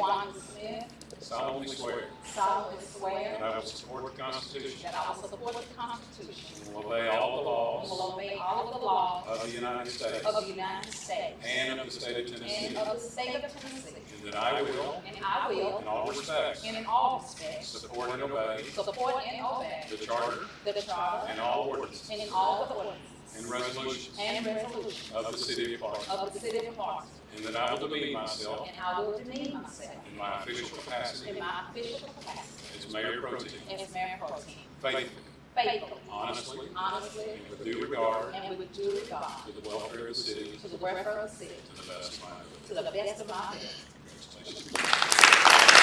Wanda Smith, solemnly swear solemnly that swear I will support the Constitution that I will support the Constitution and will obey all the and will laws obey all of the laws of the United States of the United States and of the state of Tennessee, and of the state of Tennessee, and that I will, and I will, in all respects, and in all respects, support and obey support and obey the Charter the Charter and all ordinances and in all the ordinances and resolutions and resolutions of the city of Clarksville, of the city of Clarksville, and that I will demean myself and I will demean myself in my official capacity in my official capacity as mayor pro tem, as mayor pro tem, faithfully, faithfully, honestly, honestly, and with due regard and with due regard to the welfare of the city, to the welfare of the city, to the best of my ability. to the best of my ability. Congratulations.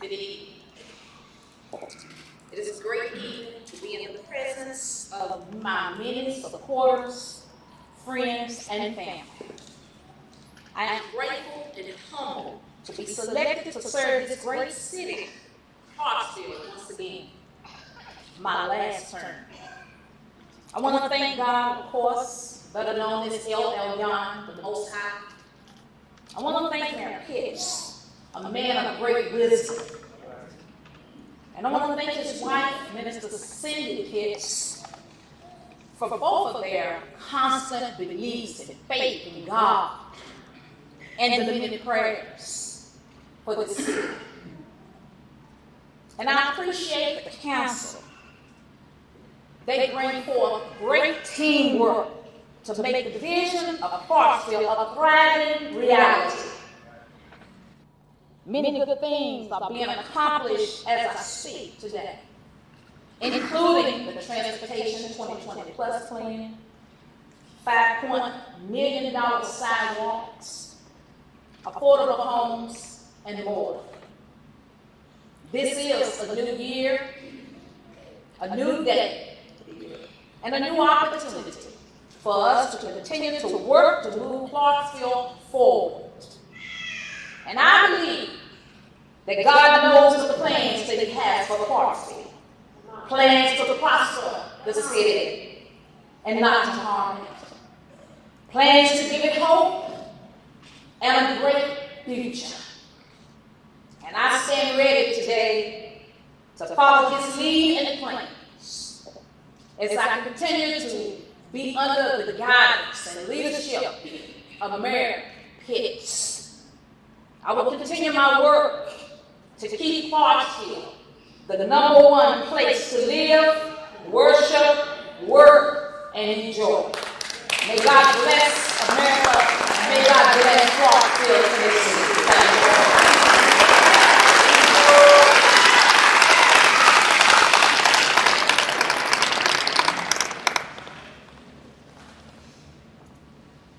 Good evening. It is a great evening to be in the presence of my many supporters, friends, and family. I am of grateful and humbled to be selected to serve this great city Clarksville once again, my last term. I want to thank God, of course, better known as El Elyon, the Most High. I want to thank Mayor Pitts, a man of great wisdom. And I want to thank his wife, Minister Cindy Pitts, for both of their constant beliefs and faith in God and the many prayers for the city. And I appreciate the council. They bring forth great teamwork to make the vision of Clarksville a thriving reality. Many good things are being accomplished as I speak today, including the Transportation 2020 Plus Plan, $5.1 million sidewalks, affordable homes, and more. This is a new year, a new day, and a new opportunity for us to continue to work to move Clarksville forward. And I believe that God knows the plans that He has for Clarksville, plans to prosper the city and not to harm it, plans to give it hope and a great future. And I stand ready today to follow his lead and plans as I continue to be under the guidance and leadership of Mayor Pitts. I will continue my work to keep Clarksville the number one place to live, worship, work, and enjoy. May God bless America. May God bless Clarksville, Tennessee. Thank you.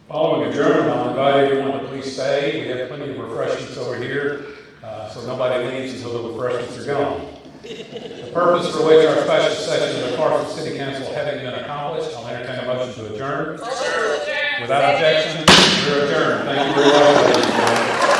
Following adjournment, I'll invite everyone to please stay. We have plenty of refreshments over here, uh, so nobody leaves until the refreshments are gone. The purpose for which our special session of the Clarksville City Council having been accomplished, I'll entertain a motion to adjourn. Without objection, we're adjourned. Thank you very much. ladies and gentlemen.